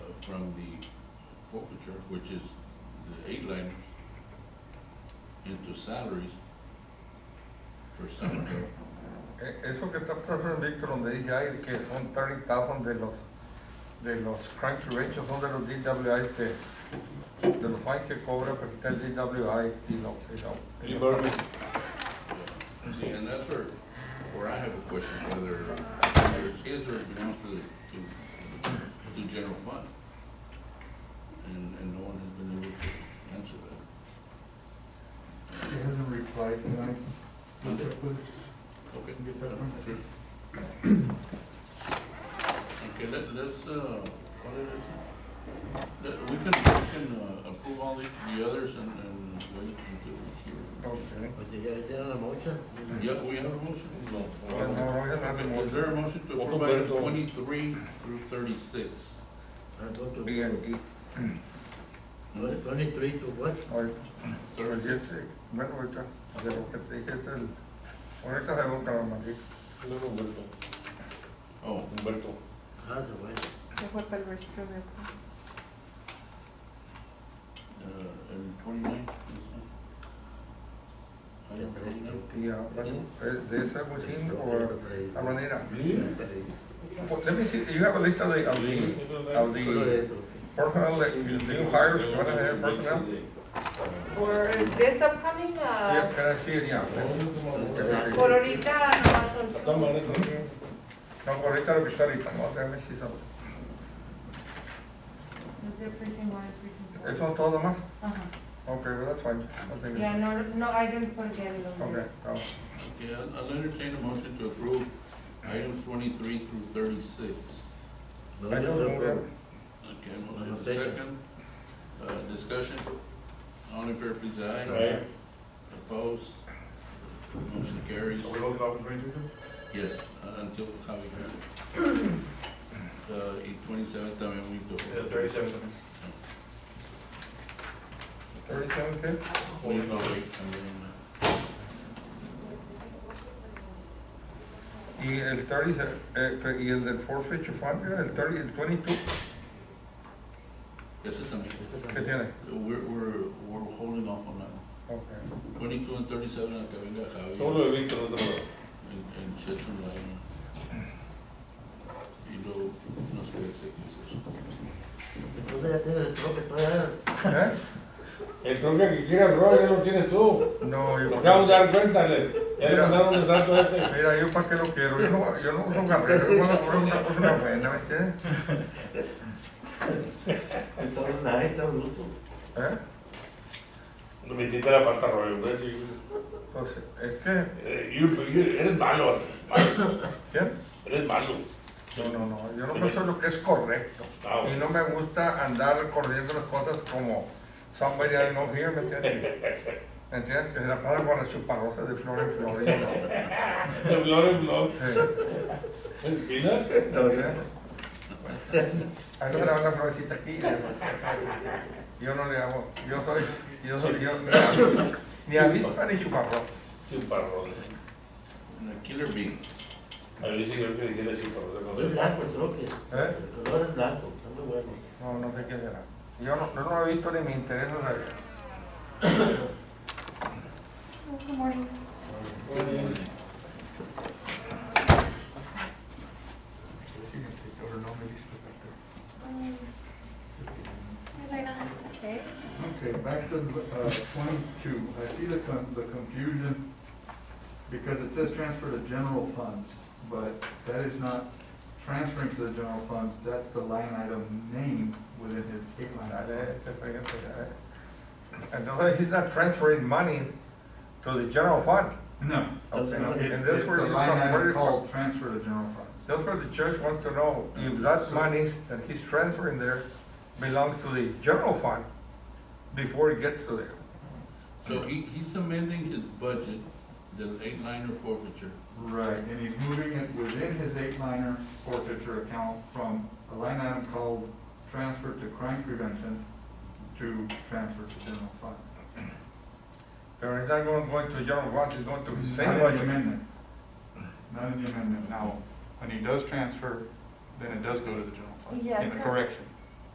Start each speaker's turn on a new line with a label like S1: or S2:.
S1: from the forfeiture, which is the eight liners, into salaries for summer help.
S2: Eh, Eso que está profesor Víctor, donde dije ay, que son 30,000 de los, de los crunch ratios, son de los DWI, que, este, de los fines que cobra, porque está el DWI y no, y no.
S3: Lee Berman,
S1: Yeah. See, and that's where, where I have a question, whether, whether it's his or it belongs to, the- to, to the general fund. And, and no one has been able to answer that.
S4: He hasn't replied tonight.
S1: Monday.
S4: Please,
S1: Okay.
S4: Get that one.
S1: Sure. Okay, let, let's, uh, what it is, let, we can, we can uh, approve all the, the others and, and wait until
S2: Ok.
S5: Pues ya hicieron la mocha.
S1: we hear. Yeah, we have a motion? No.
S2: Bueno, no, no, ya no
S1: Okay, is
S2: hacemos.
S1: there a motion to approve
S3: Ojo,
S1: item
S3: Berto.
S1: twenty-three through thirty-six?
S5: I go to
S2: Bien,
S5: tw- twenty-three to what?
S2: Oye, pero yo te- bueno, ahorita, de lo que te dije, este es el, ahorita se busca la maldita.
S3: no no, Humberto,
S1: Oh,
S3: Humberto.
S5: Ah, the way.
S6: Se fue para el registro de acá.
S1: uh, and twenty-nine? Item twenty-nine?
S2: Y ah, bueno, es de esa bocina o la manera. Let me see, you have a list of the, of the, of the personnel, that you- new hires, what are their personnel?
S6: Por this upcoming,
S2: Yeah,
S6: uh,
S2: can I see it, yeah.
S1: Oh,
S2: Okay.
S6: por ahorita nomás son two.
S2: No, ahorita lo que está ahorita, no, déjame si son.
S6: Los de precinct one, precinct four.
S2: ¿Eso es todo más?
S6: Ajá.
S2: Ok, well, that's fine. I think
S6: Yeah,
S2: it's-
S6: no, no, I didn't forget it.
S2: Okay, no.
S1: Okay, I'll- I'll entertain a motion to approve items twenty-three through thirty-six.
S2: I don't know.
S1: Okay, motion
S5: I'll
S1: is
S5: take it.
S1: second. Uh, discussion, all in favor, please, aye.
S3: Aye.
S1: Opposed? Motion carries. Yes, uh, until Javi. Uh, eight twenty-seven también we do.
S2: Thirty-seven, okay?
S1: We go wait, and then,
S2: Y el thirty, eh, que- y el del forfeiture fund, mira, el thirty, el twenty-two,
S1: uh, ese también.
S2: ¿qué tiene?
S1: We're, we're, we're holding off on that.
S2: Okay.
S1: Twenty-two and thirty-seven, a que venga Javi.
S3: Todo lo de Víctor, no te muevas.
S1: and, and shed some light on it. Y luego, no sé, executive session.
S5: Entonces ya tienes el troque todavía.
S2: ¿Eh?
S3: El troque que quieras, bro, ya lo tienes tú.
S2: No, yo.
S3: Nos acabamos de dar cuenta, le- ya le mandaron el dato a este.
S2: Mira, yo para qué lo quiero, yo no, yo no uso carrera, yo cuando compro una cosa una buena, ¿me entiendes?
S5: Entonces nadie está bruto.
S2: ¿Eh?
S3: No me hiciste la falta, Roy, hombre, sí.
S2: Entonces, es que,
S3: Eh, you- you- Eres malo, malo,
S2: ¿quién?
S3: eres malo.
S2: No, no, no, yo no me lo que es correcto.
S3: Ah,
S2: Y
S3: bueno.
S2: no me gusta andar corriendo las cosas como somebody I know here, ¿me entiendes? ¿Me entiendes? Que se la pasa con las chuparrosas de flor en flor. y no.
S3: De flor en flor.
S2: Sí.
S3: ¿Espinas?
S2: A mí me la una florecita aquí. y demás. Yo no le hago, yo soy, yo soy, yo ni avispa- ni avispa ni chuparrosa.
S3: Chuparrones.
S1: And a killer bee.
S3: A ver si creo que dijera chuparrones.
S5: Pero es blanco el troque.
S2: ¿Eh?
S5: El color es blanco, está muy bueno.
S2: No, no sé qué será. Yo no, yo no lo he visto ni me interesa saber.
S6: Good morning. Okay.
S4: Okay, back to uh, twenty-two. I see the con- the confusion because it says transfer to general funds, but that is not transferring to the general funds. That's the line item name within his eight line.
S2: Dale, este fregado, ya, eh. Entonces, he's not transferring money to the general fund.
S4: No.
S2: Okay.
S4: No, it-
S2: And that's
S4: It's the
S2: where you
S4: line
S2: come- where
S4: item
S2: you-
S4: called transfer to general funds.
S2: That's what the church wants to know, if
S4: Mm-hmm.
S2: that money that he's transferring there belongs to the general fund before it gets to there.
S1: So he, he's amending his budget, the eight liner forfeiture.
S4: Right, and he's moving it within his eight-liner forfeiture account from a line item called transfer to crime prevention to transfer to general fund.
S2: Or he's not going, going to general fund, he's going to his
S4: Not
S2: same
S4: in the
S2: budget.
S4: amendment. Not in the amendment. Now, when he does transfer, then it does go to the general fund.
S6: Yes,
S4: In the
S6: that's-
S4: correction.